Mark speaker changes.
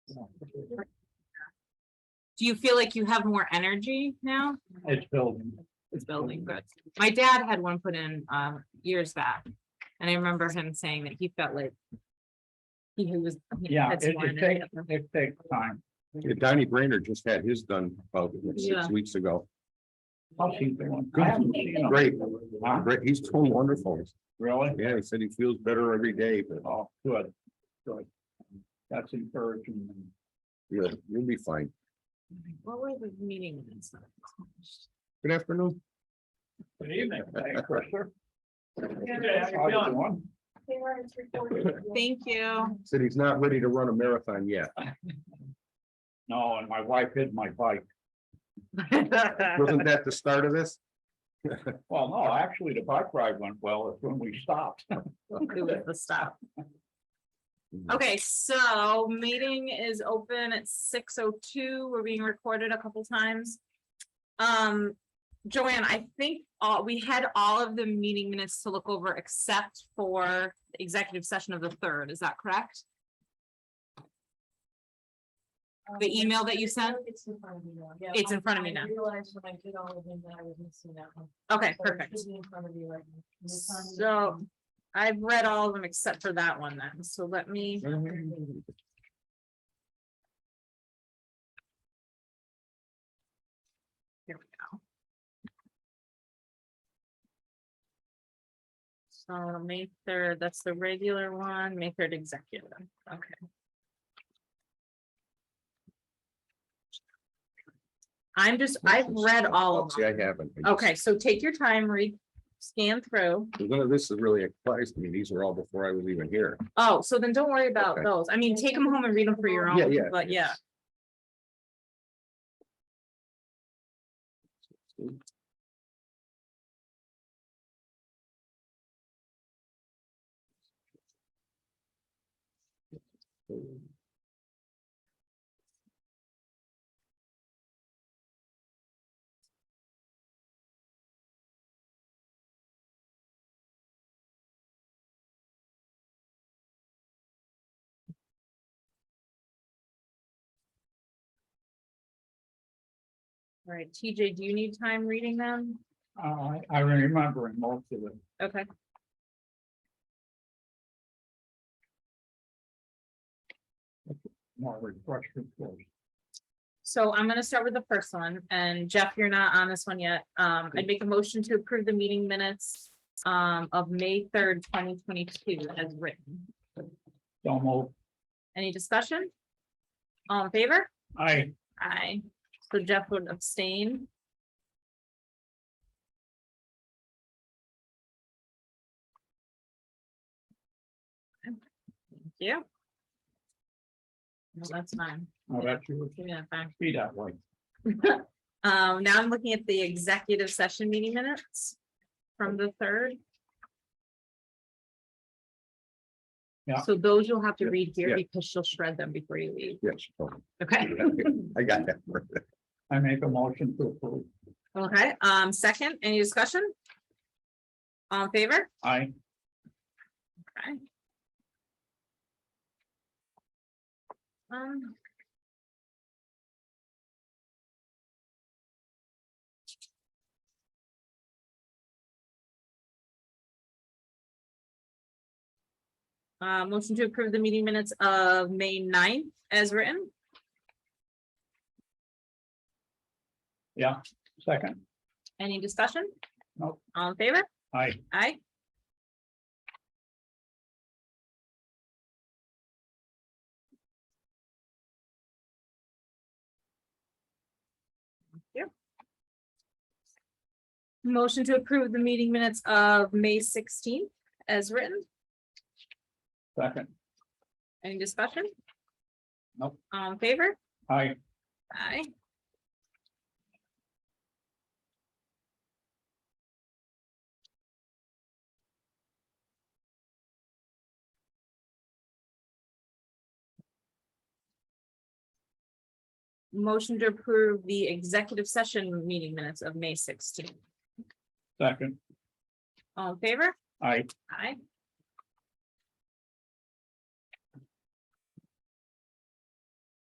Speaker 1: Do you feel like you have more energy now?
Speaker 2: It's building.
Speaker 1: It's building, good. My dad had one put in uh years back. And I remember him saying that he felt like. He was. he
Speaker 2: Yeah,
Speaker 1: had
Speaker 2: it,
Speaker 1: sworn
Speaker 2: it
Speaker 1: at
Speaker 2: takes,
Speaker 1: it.
Speaker 2: it takes time.
Speaker 3: Yeah, Donnie Brainerd just had his done about six
Speaker 1: Yeah.
Speaker 3: weeks ago.
Speaker 2: I'll see if they want- I haven't seen them.
Speaker 3: Great.
Speaker 2: Huh?
Speaker 3: Great, he's doing wonderful.
Speaker 2: Really?
Speaker 3: Yeah, he said he feels better every day, but
Speaker 2: Oh, good, good. That's encouraging.
Speaker 3: you'll, you'll be fine.
Speaker 1: What were the meeting minutes? that I watched?
Speaker 3: Good afternoon.
Speaker 2: Good evening. Thanks, Chris.
Speaker 4: They weren't recorded.
Speaker 1: Thank you.
Speaker 3: Said he's not ready to run a marathon yet.
Speaker 2: No, and my wife hid my bike.
Speaker 3: Wasn't that the start of this?
Speaker 2: Well, no, actually, the bike ride went well. It's when we stopped.
Speaker 1: It was the stuff. Okay, so meeting is open at six oh two. We're being recorded a couple times. Um, Joanne, I think all, we had all of the meeting minutes to look over except for the executive session of the third. Is that correct? The email that you sent?
Speaker 4: It's in front of me now. Yeah,
Speaker 1: It's in
Speaker 4: I-
Speaker 1: front of me now.
Speaker 4: I realized when I did all of them that I was missing that one.
Speaker 1: Okay,
Speaker 4: So it
Speaker 1: perfect.
Speaker 4: should be in front of you right now. It's on the-
Speaker 1: So I've read all of them except for that one then. So let me, here we go. So May third, that's the regular one, May third executive. Okay. I'm just, I've read all of
Speaker 3: See, I
Speaker 1: them.
Speaker 3: haven't. I just-
Speaker 1: Okay, so take your time, read, scan through.
Speaker 3: None of this is really applies to me. These are all before I was even here.
Speaker 1: Oh, so then don't worry about
Speaker 3: Okay.
Speaker 1: those. I mean, take them home and read them for your
Speaker 3: Yeah,
Speaker 1: own,
Speaker 3: yeah,
Speaker 1: but yeah. All right, TJ, do you need time reading them?
Speaker 2: I, I remember most of it.
Speaker 1: Okay.
Speaker 2: More refreshment. for us.
Speaker 1: So I'm gonna start with the first one, and Jeff, you're not on this one yet. Um, I'd make a motion to approve the meeting minutes um, of May third, twenty twenty-two as written.
Speaker 2: Don't move.
Speaker 1: Any discussion? All in favor?
Speaker 2: I,
Speaker 1: Aye. So Jeff would abstain. Thank you. No, that's fine.
Speaker 2: oh, that's you would
Speaker 1: Yeah, fine.
Speaker 2: be that way.
Speaker 1: Um, now I'm looking at the executive session meeting minutes from the third.
Speaker 2: Yeah.
Speaker 1: So those you'll have to
Speaker 3: Yeah,
Speaker 1: read here
Speaker 3: yeah. Mm-hmm.
Speaker 1: because she'll shred them before you leave.
Speaker 3: Yes. oh,
Speaker 1: Okay,
Speaker 3: I got that.
Speaker 2: I make a motion to approve.
Speaker 1: okay, um, second, any discussion? All in favor?
Speaker 2: I,
Speaker 1: Okay. Um. Uh, motion to approve the meeting minutes of May 9th as written.
Speaker 2: yeah, second,
Speaker 1: Any discussion?
Speaker 2: Nope.
Speaker 1: All in favor?
Speaker 2: I,
Speaker 1: Aye. Thank you. Motion to approve the meeting minutes of May sixteenth as written.
Speaker 2: second,
Speaker 1: Any discussion?
Speaker 2: Nope.
Speaker 1: All in favor?
Speaker 2: I,
Speaker 1: Aye. Motion to approve the executive session meeting minutes of May sixteenth.
Speaker 2: second,
Speaker 1: All in favor?
Speaker 2: I,
Speaker 1: Aye.